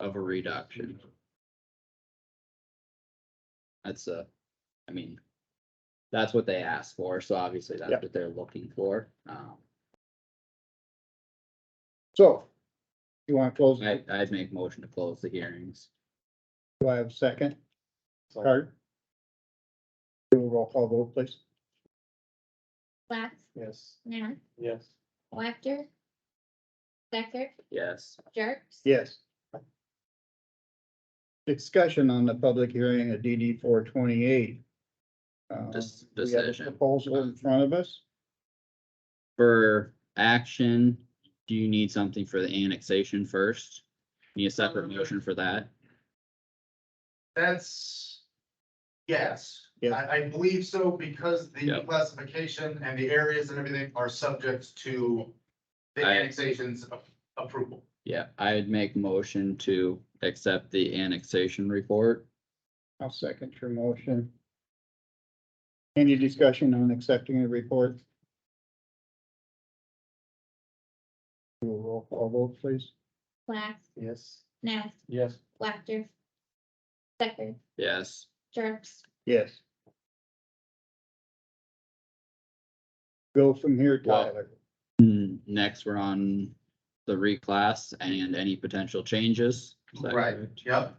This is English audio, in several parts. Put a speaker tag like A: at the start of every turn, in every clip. A: of a reduction. That's a, I mean, that's what they asked for, so obviously that's
B: Yep.
A: what they're looking for. Um,
B: So, you want to close, it?
A: I, I'd make motion to close the hearings.
B: do I have a second?
C: Second.
B: Carter? Do a roll call vote, please.
D: Wax,
C: Yes.
D: Nath,
C: Yes.
D: Wactor. Stecker,
A: Yes,
D: Jerks.
B: Yes. Discussion on the public hearing of DD four twenty-eight. Um,
A: Dis- decision.
B: Proposal in front of us.
A: for action, do you need something for the annexation first? Need a separate motion for that?
E: That's, yes.
B: Yeah.
E: I, I believe so because
A: Yeah.
E: the classification and the areas and everything are subject to the
A: I-
E: annexations a- approval.
A: Yeah, I'd make motion to accept the annexation report.
B: I'll second your motion. Any discussion on accepting the report? Do a roll call vote, please.
D: Wax,
C: Yes.
D: Nath,
C: Yes.
D: Wactor. Stecker,
A: Yes,
D: Jerks.
B: Yes. Go from here,
A: Well-
B: Tyler.
A: Mm, next we're on the reclass and any potential changes. Is that
E: Right.
A: correct?
E: Yep,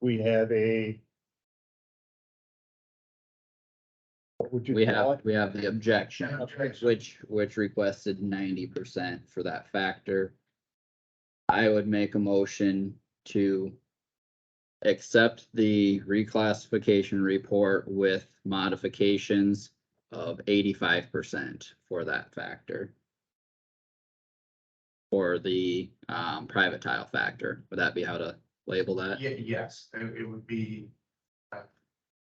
B: We have a. What would
A: We
B: you call
A: have,
B: it?
A: we have the objection,
E: Objection.
A: which, which requested ninety percent for that factor. I would make a motion to accept the reclassification report with modifications of eighty-five percent for that factor. For the, um, private tile factor, would that be how to label that?
E: ye- yes, it, it would be uh,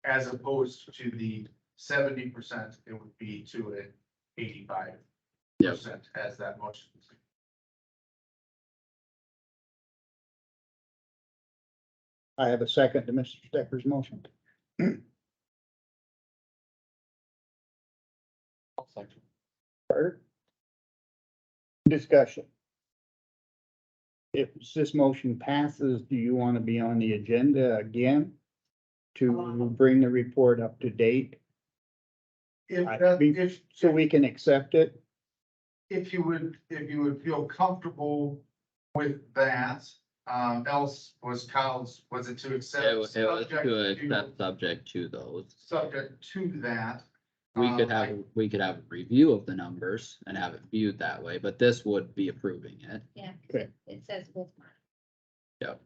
E: as opposed to the seventy percent, it would be to an eighty-five
A: Yep.
E: percent as that motion.
B: I have a second to Mr. Stecker's motion. Carter? Discussion. If this motion passes, do you want to be on the agenda again? To
E: Um.
B: bring the report up to date
E: If,
B: I-
E: that-
B: we-
E: if,
B: so we can accept it?
E: if you would, if you would feel comfortable with that, um, else was Kyle's, was it to accept?
A: It was, it was
E: subject
A: good,
E: to-
A: that's subject to those.
E: Subject to that.
A: We could
E: Um, I-
A: have, we could have a review of the numbers and have it viewed that way, but this would be approving it.
D: Yeah. 'cause
B: Okay.
D: It says with mine.
B: It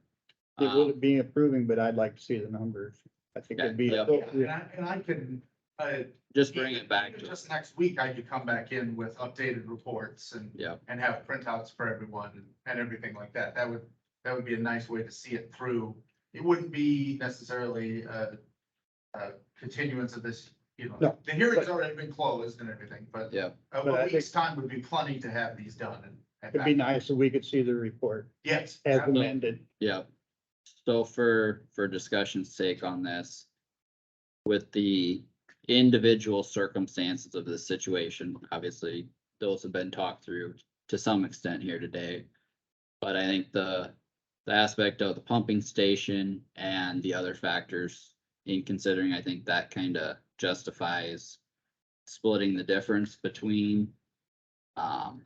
B: would
A: Um,
B: be approving, but I'd like to see the numbers. I think it'd be
A: Yeah.
E: And
B: appropriate.
E: I, and I can, uh.
A: Just bring it back to,
E: Just next week, I could come back in with updated reports and,
A: yeah,
E: and have printouts for everyone and- and everything like that. That would, that would be a nice way to see it through. It wouldn't be necessarily a, a continuance of this, you know,
B: No.
E: the hearing's already been closed and everything, but
A: yeah,
E: a-
B: But I
E: a
B: think-
E: week's time would be plenty to have these done and. and
B: It'd be
E: back.
B: nice if we could see the report
E: Yes.
B: as
E: absolutely.
B: amended.
A: yeah. So for, for discussion's sake on this, with the individual circumstances of the situation, obviously, those have been talked through to some extent here today. But I think the, the aspect of the pumping station and the other factors in considering, I think that kind of justifies splitting the difference between um,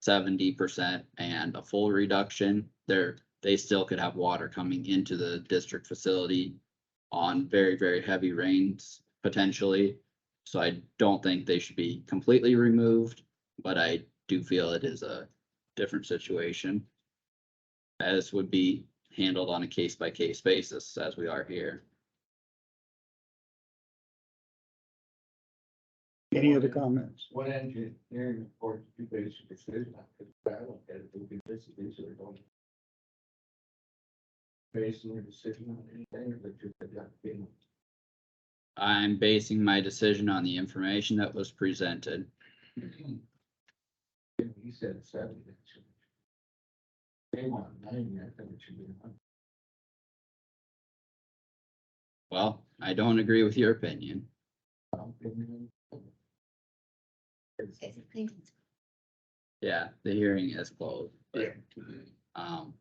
A: seventy percent and a full reduction. There, they still could have water coming into the district facility on very, very heavy rains potentially. So I don't think they should be completely removed, but I do feel it is a different situation. As would be handled on a case by case basis as we are here.
B: Any other comments?
C: What engineering report you base your decision on? Because I look at it, we can this, these are going. Basing your decision on anything that you have got been.
A: I'm basing my decision on the information that was presented.
C: He said seventy. that should be- They want ninety, I think it should be a hundred.
A: Well, I don't agree with your opinion.
C: Opinion. It's-
D: It's- it's-
A: Yeah, the hearing is closed. but,
E: Yeah.
A: Um,